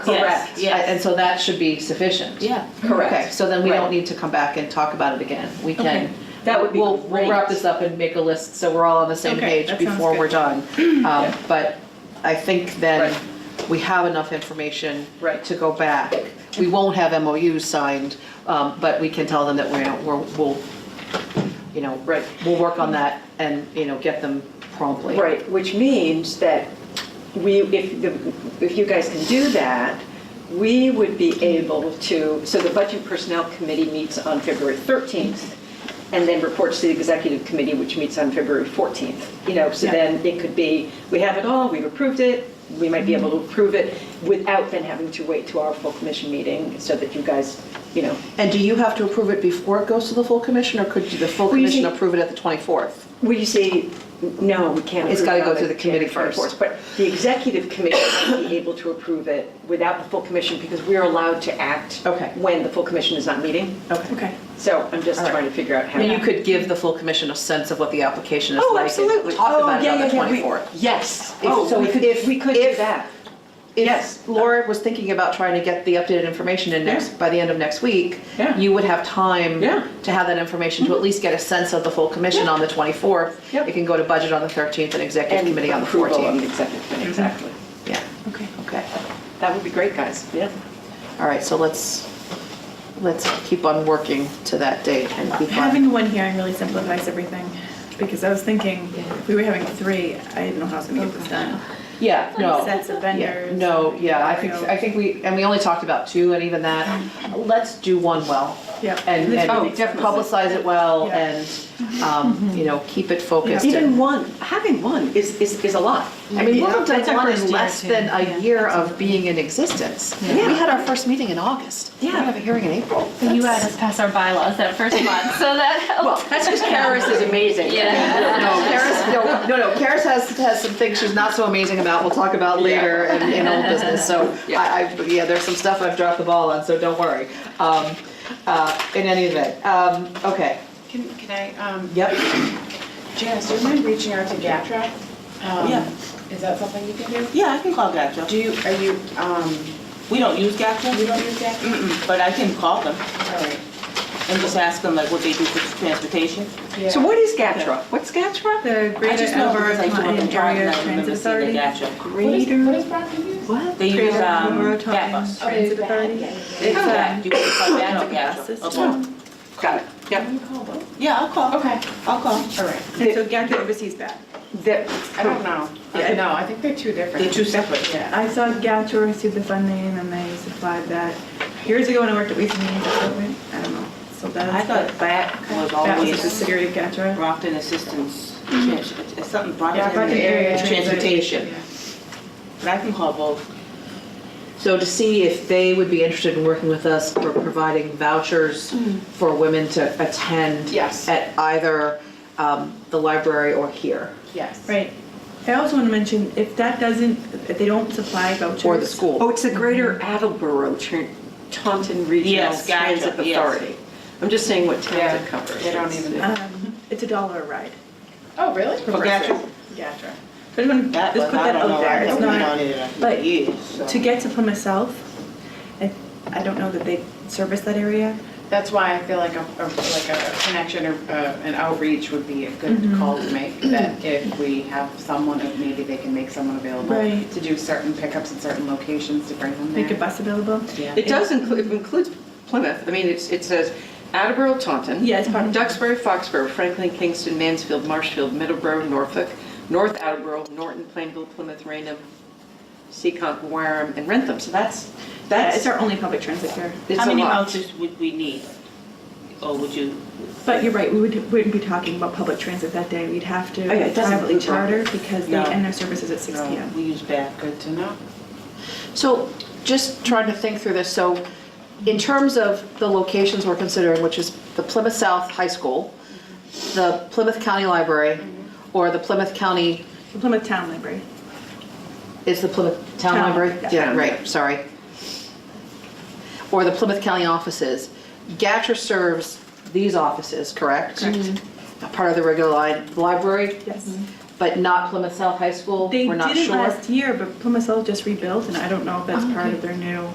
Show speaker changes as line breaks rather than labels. Correct, yes.
And so that should be sufficient.
Yeah,
Okay,
correct.
so then we
Right.
don't need to come back and talk about it again. We
Okay,
can.
that would be
We'll, we'll wrap
great.
this up and make a list, so we're all on the same
Okay,
page
that sounds
before
good.
we're done. Um, But I think then
Right.
we have enough information.
Right.
To go back. We won't have MOUs signed, um, but we can tell them that we're, we're- we'll, you know.
Right.
We'll work on that and, you know, get them promptly.
Right, which means that we, if, the- if you guys can do that, we would be able to, so the Budget Personnel Committee meets on February 13th and then reports to the Executive Committee, which meets on February 14th. You know, so
Yeah.
then it could be, we have it all, we've approved it, we might be able to approve it without then having to wait to our full commission meeting so that you guys, you know,
And do you have to approve it before it goes to the full commission, or could the full
Well, you
commission
see-
approve it at the 24th?
Well, you see, no, we can't.
It's
approve
gotta
it
go
on
through the committee
January
first.
24th, But the executive committee will be able to approve it without the full commission because we're allowed to act.
Okay.
When the full commission is not meeting.
Okay.
So I'm just
All right.
trying to figure out how.
And you
to-
could give the full commission a sense of what the application is
Oh,
like. and
absolutely.
Talk
Oh,
about it
yeah,
on the
yeah, yeah, we-
24th.
Yes.
If- so
Oh,
we could-
if we could do
if-
that.
If
Yes.
Laura was thinking about trying to get the updated information in next,
Yeah.
by the end of next week,
Yeah.
you would have time
Yeah. Mm-hmm.
to have that information, to at least get a sense of the full commission
Yeah.
on the 24th.
Yep.
It can go to budget on the 13th and executive
And
committee on the Mm-hmm.
approval
14th.
the executive committee, exactly.
Yeah,
Okay.
okay.
That would be great, guys. Yeah.
All right, so let's, let's keep on working to that date and keep on.
Having one hearing really simplifies everything, because I was thinking, if we were having three, I didn't know how I was gonna get this done.
Yeah, no.
Sets of
Yeah,
vendors.
No, yeah, I think, I think we, and we only talked about two, and even that,
Mm-hmm.
let's do one well.
Yep.
And, and
Oh, definitely.
publicize it well,
Yeah.
and, um, you know, keep it focused.
Even
and-
one, having one is, is, is a lot.
I mean,
Yeah,
Wilmington
that's our
One
first
is
year,
less
too.
than a
Yeah.
year of being in existence. We
Yeah.
had our first meeting in August. We
Yeah.
have a hearing in April.
But You had us pass our bylaws that first month, so that
Oh,
helped.
That's just Karis is amazing.
Yeah.
Oh.
No, Karis, no, no, no, Karis has, has some things she's not so amazing about, we'll talk about later in, in old business, so I, I, yeah, there's some stuff I've dropped the ball on, so don't worry. Um, uh, in any event, um, okay,
Can, can I, um,
yep,
Janice, do you mind reaching out to GATRA? Um,
Yeah.
Is that something you can do?
Yeah, I can call GACJA.
Do you, are you, um,
We don't use
you
GACJA,
don't use GATRA?
but I can call them
All right.
and just ask them like what they do for transportation.
So what is GATRA? What's GATRA?
The
I
Greater
just know
Attleboro
because I grew up in
Client
Brockton,
Area
I remember
Transit
seeing
Authority.
the GATRA.
What is, what is Brockton use?
What?
They use,
Greater Attleboro
um,
Client
GAT bus.
Transit
Oh,
Authority.
that, yeah,
It's
It's, uh,
GAT, you can call that or
gas
GATRA.
system.
or both.
Got it, yep.
Can you call both?
Yeah, I'll call.
Okay.
I'll call.
All right.
And so GATRA oversees that.
The-
I don't know.
Yeah.
No, I think they're two different.
They're two separate.
Yeah.
I saw GATRA receive the funding and they supplied that years ago when I worked at Waste and Means Department, I don't know, so
I
that's.
thought BAT was
That was a
always
subsidiary of GATRA.
Brockton Assistance, Trans- it's something
Yeah, Brockton
Brockton
Area
Area
Transit.
Transportation. But I can call both.
so to see if they would be interested in working with us for providing vouchers for women to attend.
Yes.
At either, um, the library or here,
Yes.
Right. I also want to mention, if that doesn't, if they don't supply vouchers.
or the school.
Oh, it's the Greater Attleboro Tran- Taunton Regional
Yes, gotcha,
Transit
yes.
Authority. I'm just saying what
Yeah,
towns it covers.
they don't even-
Um, It's a dollar a ride.
Oh, really?
For GATRA?
GATRA. So I just want to
That
just
was,
put
I
that
don't
out
know, I
there. It's
haven't been on
not,
it in
but
years. so.
to get to Plymouth South, I, I don't know that they service that area.
That's why I feel like a, a- like a connection or uh, an outreach would be a good call to make, that if we have someone, if maybe they can make someone available
Right.
to do certain pickups in certain locations to bring them there.
Make a bus available.
Yeah.
It does include, it includes Plymouth. I mean, it's, it says Attleboro, Taunton.
Yeah, it's part of-
Duxbury, Foxborough, Franklin, Kingston, Mansfield, Marshfield, Middleborough, Norfolk, North Attleboro, Norton, Plainville, Plymouth, Rainham, Seacon, Wareham, and Rentham. So that's,
That's
that's,
it's our only public transit here.
it's
How
a
many
lot.
vouchers would we need? Or would you?
But you're right, we would, wouldn't be talking about public transit that day. We'd have to
Oh, yeah, it doesn't
privately
include
charter because they
No.
end their services at six
No,
PM.
We use back.
Good to know.
So just trying to think through this, so in terms of the locations we're considering, which is the Plymouth South High School, the Plymouth County Library, or the Plymouth County,
The Plymouth Town Library.
is the Plymouth Town
Town,
Library?
yeah.
Yeah, right, sorry. Or the Plymouth County offices. GATRA serves these offices, correct? Mm-hmm.
Correct.
Mm-hmm.
A Part of the regular li- library?
Yes.
but not Plymouth South High School?
They
We're not
did it
sure. Oh,
last year, but Plymouth South just rebuilt, and I don't know if that's part of their new.